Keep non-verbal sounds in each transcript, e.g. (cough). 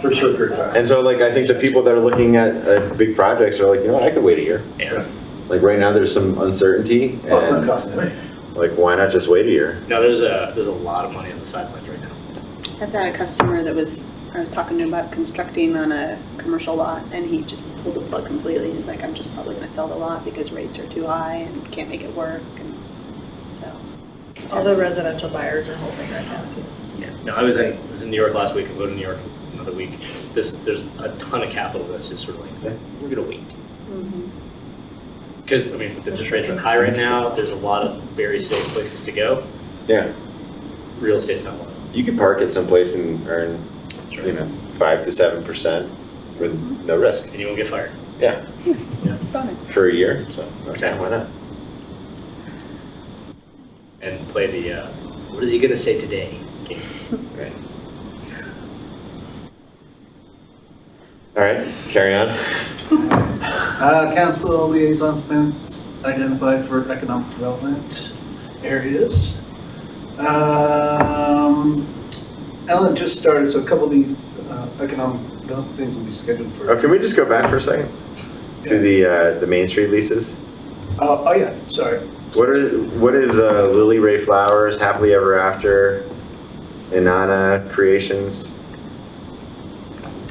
for sure, period of time. And so like, I think the people that are looking at, at big projects are like, you know, what, I could wait a year. Yeah. Like right now, there's some uncertainty Plus, it's not and costing eh? me. like, why not just wait a year? No, there's a, there's a lot of money on the sidelines right now. I've got a customer that was, I was talking to him about constructing on a commercial lot, and he just pulled the plug completely. He's like, I'm just probably gonna sell the lot because rates are too high and can't make it work, and so. All the residential buyers are holding right now too. Yeah. No, I was in, I was in New York last week, I'm going to New York another week. This, there's a ton of capital that's just sort of like, we're gonna wait. Mm-hmm. Because, I mean, with the interest rates are high right now, there's a lot of very safe places to go. Yeah. Real estate's not one of them. You could park it someplace and earn, That's right. you know, five to seven percent with no risk. And you won't get fired. Yeah, (laughs) Bonus. for a year, so, okay, why not? And play the, uh, what is he gonna say today game. Right. All right, carry on. Uh, council liaison spends identified for economic development areas. Um, Ellen just started, so a couple of these, uh, economic development things will be scheduled for. Oh, can we just go back for a second? To the, uh, the Main Street leases? Oh, oh yeah, sorry. What are, what is uh, Lily Ray Flowers, Happily Ever After, Inanna Creations?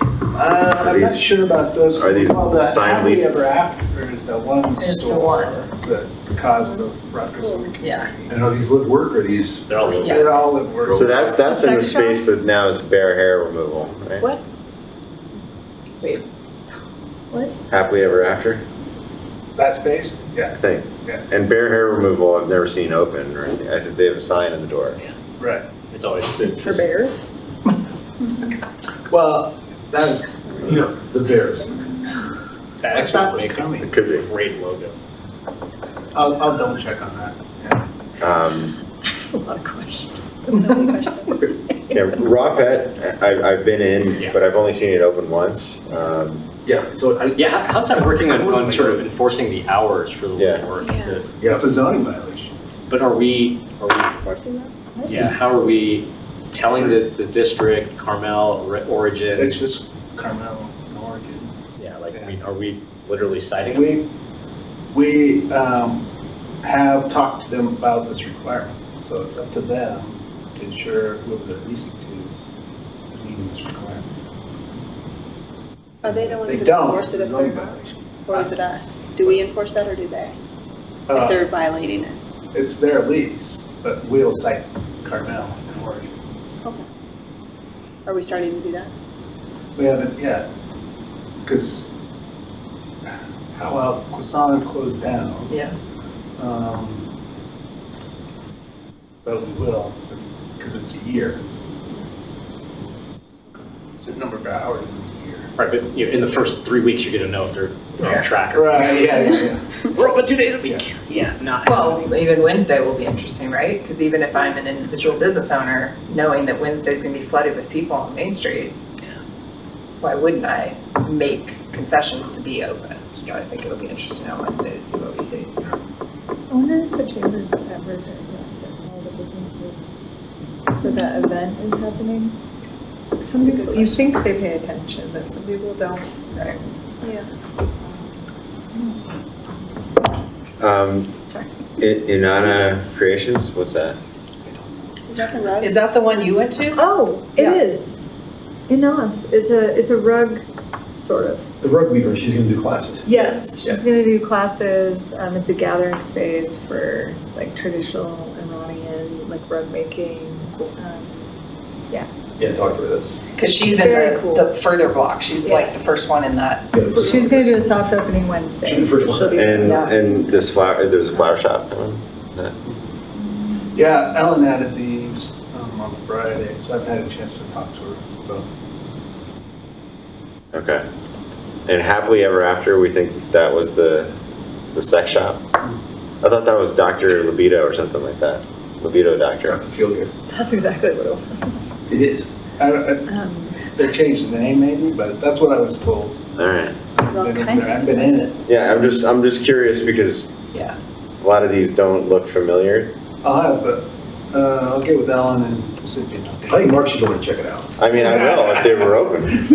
Uh, I'm not these- sure about those. are these Well, the signed Happily leases? Ever After is the one Is the store one. that caused the ruckus in the Yeah. community. And are these live work or these? They're all little. They're all at work. So that's, that's in the Sex shop? space that now is bare hair removal, right? What? Wait. Happily Ever After That space? Yeah, thing. Yeah. And bare hair removal, I've never seen open or anything. I said they have a sign on the door. right. It's always, It's for bears? Oh Well, that is, you know, the Bears. that I thought it actually was would make coming. It could a great logo. I'll, I'll double check on that. Yeah. be. Um, A lot of questions. (laughs) Yeah, Raw Pet, I, I've been in, Yeah. but I've only seen it open once. Um, Yeah, so I. Yeah, how- how's that working on, on sort of enforcing the hours for the Yeah. work? Yeah. The- Yeah. It's a zoning violation. But are we, are we, yeah, how are we telling the, the district, Carmel, Ri- Origin? It's just Carmel, Oregon. Yeah, like, I mean, are we literally citing them? We, we um, have talked to them about this requirement, so it's up to them to ensure whoever they're leasing to is meeting this requirement. Are they the ones They that don't, enforced it's it at a Clear zoning Mountain? violation. Or is it us? Do we enforce that or do they? If Uh, they're violating it? It's their lease, but we'll cite Carmel and Oregon. Okay. Are we starting to do that? We haven't yet, because, well, Quasana closed down. Yeah. Um, But we will, because it's a year. It's a number of hours in a year. Right, but you know, in the first three weeks, you're gonna know if they're they're on track or. Right, yeah, yeah, yeah. (laughs) We're open two days a week. Yeah, not. Well, even Wednesday will be interesting, right? Because even if I'm an individual business owner, knowing that Wednesday's gonna be flooded with people on Main Street, why wouldn't I make concessions to be open? So I think it'll be interesting on Wednesday to see what we see. I wonder if the chambers advertise that to all the businesses that that event is happening. Some That's a good people, you question. think they pay attention, but some people don't. Right. Yeah. um, Sorry. I- Inanna Creations, what's that? Is that the rug? Is that the one you went to? Oh, it Yeah. is. Inas is a, it's a rug, sort of. The rug weaver, she's gonna do classes. Yes, Yeah. she's gonna do classes, um, it's a gathering space for like traditional Iranian, like rug making. um, Yeah, talk to her, that's. Because she's in Very cool. the, the further block. She's like the first one in that. yeah, that's- She's gonna do a soft opening Wednesday. She's the first one. She'll be- And, yeah. and this flower, there's a flower shop. Yeah, Ellen added these um, on Friday, so I've had a chance to talk to her about Okay. And Happily Ever After, we think that was the, the sex shop? I thought that was Dr. Libido or something like that. Libido doctor. That's a feel good. That's exactly what it was. It is. I don't- Um, I- They changed the name maybe, but that's what I was told. All right. Well, Been can over I there. just- I've been in it. Yeah, I'm just, I'm just curious because Yeah. a lot of these don't look familiar. I'll have, uh, uh, I'll get with Ellen and see if you know. I think Mark should go and check it out. I mean, I will if they were open.